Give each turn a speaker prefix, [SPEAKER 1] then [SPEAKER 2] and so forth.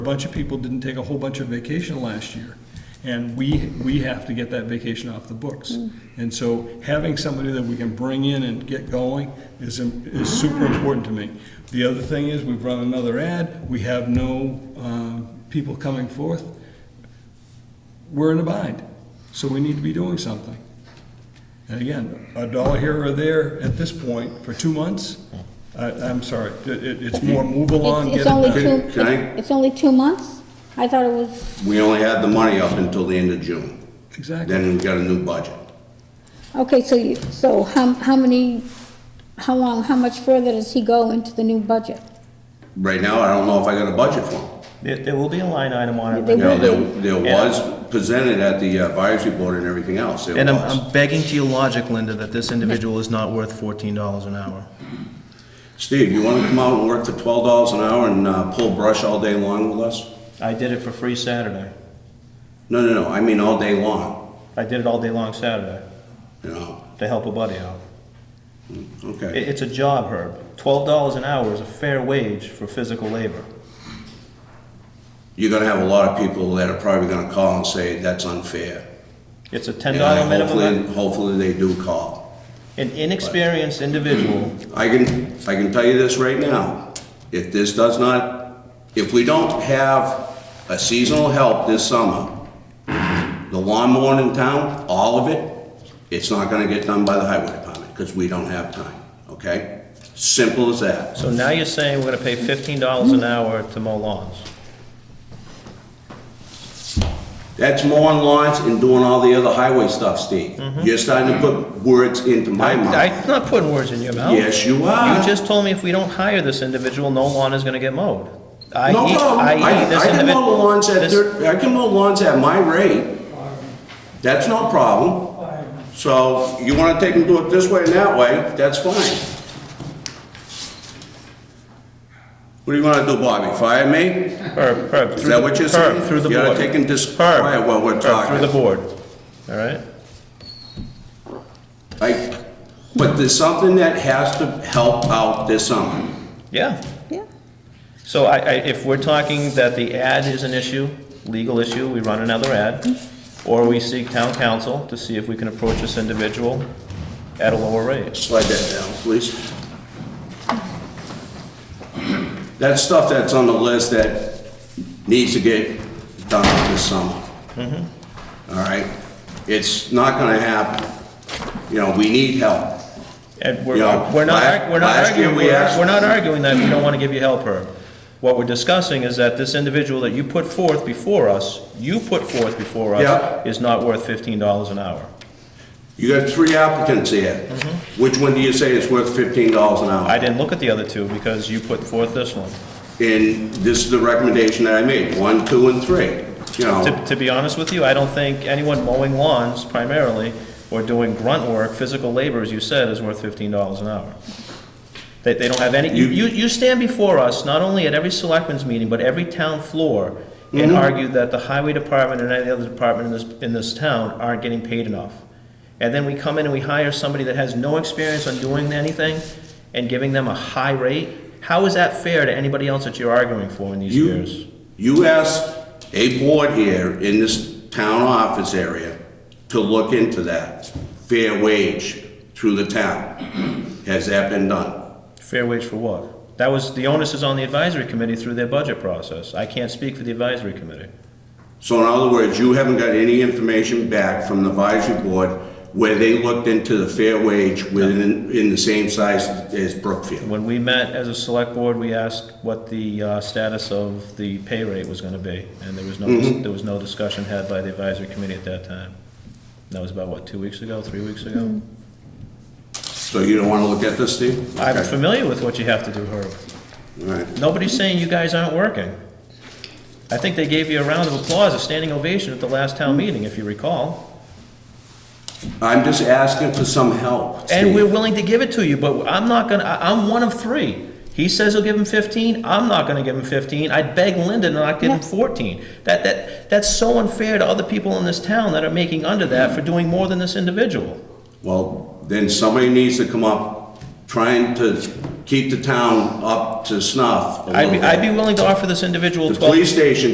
[SPEAKER 1] A bunch of people didn't take a whole bunch of vacation last year, and we, we have to get that vacation off the books.
[SPEAKER 2] Mm.
[SPEAKER 1] And so having somebody that we can bring in and get going is, is super important to me. The other thing is, we've run another ad, we have no um, people coming forth. We're in a bind, so we need to be doing something. And again, a dollar here or there at this point for two months, I, I'm sorry, it, it- it's more move along, get
[SPEAKER 2] It's
[SPEAKER 1] it
[SPEAKER 2] it's only
[SPEAKER 1] done.
[SPEAKER 2] two,
[SPEAKER 3] Can I-
[SPEAKER 2] it's- it's only two months? I thought it was,
[SPEAKER 3] We only had the money up until the end of June.
[SPEAKER 1] Exactly.
[SPEAKER 3] Then we got a new budget.
[SPEAKER 2] okay, so you, so how, how many, how long, how much further does he go into the new budget?
[SPEAKER 3] Right now, I don't know if I got a budget for them.
[SPEAKER 4] There, there will be a line item on it.
[SPEAKER 2] They
[SPEAKER 3] You know,
[SPEAKER 2] will
[SPEAKER 3] there, there was presented at the uh, advisory board and everything else, there
[SPEAKER 4] And I'm,
[SPEAKER 3] was.
[SPEAKER 4] I'm begging to your logic, Linda, that this individual is not worth fourteen dollars an hour.
[SPEAKER 3] Steve, you wanna come out and work for twelve dollars an hour and, uh, pull brush all day long with us?
[SPEAKER 4] I did it for free Saturday.
[SPEAKER 3] No, no, no, I mean all day long,
[SPEAKER 4] I did it all day long Saturday
[SPEAKER 3] you know,
[SPEAKER 4] to help a buddy out. It,
[SPEAKER 3] okay.
[SPEAKER 4] it's a job, Herb. Twelve dollars an hour is a fair wage for physical labor.
[SPEAKER 3] You're gonna have a lot of people that are probably gonna call and say, that's unfair.
[SPEAKER 4] It's a ten
[SPEAKER 3] And
[SPEAKER 4] dollar
[SPEAKER 3] hopefully-
[SPEAKER 4] minimum.
[SPEAKER 3] Hopefully, they do call.
[SPEAKER 4] An inexperienced individual,
[SPEAKER 3] I can, I can tell you this right now, if this does not, if we don't have a seasonal help this summer, the lawn mowing in town, all of it, it's not gonna get done by the highway department, because we don't have time, okay? Simple as that.
[SPEAKER 4] so now you're saying we're gonna pay fifteen dollars an hour to mow lawns.
[SPEAKER 3] That's mowing lawns and doing all the other highway stuff, Steve. You're starting to put words into my mouth.
[SPEAKER 4] I'm not putting words in your mouth.
[SPEAKER 3] Yes, you are.
[SPEAKER 4] You just told me if we don't hire this individual, no lawn is gonna get mowed. I
[SPEAKER 3] No
[SPEAKER 4] e-
[SPEAKER 3] problem.
[SPEAKER 4] I
[SPEAKER 3] I,
[SPEAKER 4] e- this
[SPEAKER 3] I can
[SPEAKER 4] individ-
[SPEAKER 3] mow the lawns at,
[SPEAKER 4] this-
[SPEAKER 3] thir- I can mow lawns at my rate. That's no problem. So you wanna take them, do it this way and that way, that's fine. What do you wanna do, Bobby? Fire me?
[SPEAKER 4] Herb, Herb.
[SPEAKER 3] Is
[SPEAKER 4] through
[SPEAKER 3] that
[SPEAKER 4] the-
[SPEAKER 3] what you're
[SPEAKER 4] Herb,
[SPEAKER 3] saying?
[SPEAKER 4] through the
[SPEAKER 3] You
[SPEAKER 4] board.
[SPEAKER 3] gotta take and dis-
[SPEAKER 4] Herb,
[SPEAKER 3] quiet while we're
[SPEAKER 4] Herb,
[SPEAKER 3] talking.
[SPEAKER 4] Through the board, all right?
[SPEAKER 3] Like, but there's something that has to help out this summer.
[SPEAKER 4] Yeah.
[SPEAKER 2] Yeah.
[SPEAKER 4] So I, I, if we're talking that the ad is an issue, legal issue, we run another ad, or we seek town council to see if we can approach this individual at a lower rate.
[SPEAKER 3] Slide that down, please. That stuff that's on the list that needs to get done this summer. All right? It's not gonna happen. You know, we need help.
[SPEAKER 4] And we're,
[SPEAKER 3] Yeah,
[SPEAKER 4] we're not,
[SPEAKER 3] last-
[SPEAKER 4] arg- we're not
[SPEAKER 3] last year
[SPEAKER 4] arguing,
[SPEAKER 3] we asked-
[SPEAKER 4] we're we're not arguing that we don't wanna give you help, Herb. What we're discussing is that this individual that you put forth before us, you put forth before
[SPEAKER 3] Yeah.
[SPEAKER 4] us, is not worth fifteen dollars an hour.
[SPEAKER 3] You got three applicants here. Which one do you say is worth fifteen dollars an
[SPEAKER 4] I
[SPEAKER 3] hour?
[SPEAKER 4] didn't look at the other two because you put forth this one.
[SPEAKER 3] And this is the recommendation that I made, one, two, and three, you know?
[SPEAKER 4] To, to be honest with you, I don't think anyone mowing lawns primarily or doing grunt work, physical labor, as you said, is worth fifteen dollars an hour. They, they don't have any, you, you you stand before us, not only at every selectmen's meeting, but every town floor, and argue that the highway department and any other department in this, in this town aren't getting paid enough. And then we come in and we hire somebody that has no experience on doing anything and giving them a high rate? How is that fair to anybody else that you're arguing for in these years?
[SPEAKER 3] You, you asked a board here in this town office area to look into that, fair wage through the town. Has that been done?
[SPEAKER 4] Fair wage for what? That was, the onus is on the advisory committee through their budget process. I can't speak for the advisory committee.
[SPEAKER 3] So in other words, you haven't got any information back from the advisory board where they looked into the fair wage within, in the same size as Brookfield?
[SPEAKER 4] When we met as a select board, we asked what the uh, status of the pay rate was gonna be, and there was no, there was no discussion had by the advisory committee at that time. That was about, what, two weeks ago, three weeks ago?
[SPEAKER 3] So you don't wanna look at this, Steve?
[SPEAKER 4] I'm
[SPEAKER 3] Okay.
[SPEAKER 4] familiar with what you have to do, Herb.
[SPEAKER 3] All right.
[SPEAKER 4] Nobody's saying you guys aren't working. I think they gave you a round of applause, a standing ovation at the last town meeting, if you recall.
[SPEAKER 3] I'm just asking for some help,
[SPEAKER 4] And we're
[SPEAKER 3] Steve.
[SPEAKER 4] willing to give it to you, but I'm not gonna, I- I'm one of three. He says he'll give him fifteen, I'm not gonna give him fifteen, I'd beg Linda to not give him
[SPEAKER 2] Yeah.
[SPEAKER 4] fourteen. That, that, that's so unfair to other people in this town that are making under that for doing more than this individual.
[SPEAKER 3] Well, then somebody needs to come up trying to keep the town up to snuff a
[SPEAKER 4] I'd
[SPEAKER 3] little
[SPEAKER 4] be,
[SPEAKER 3] bit.
[SPEAKER 4] I'd be willing to offer this individual
[SPEAKER 3] The
[SPEAKER 4] twelve
[SPEAKER 3] police station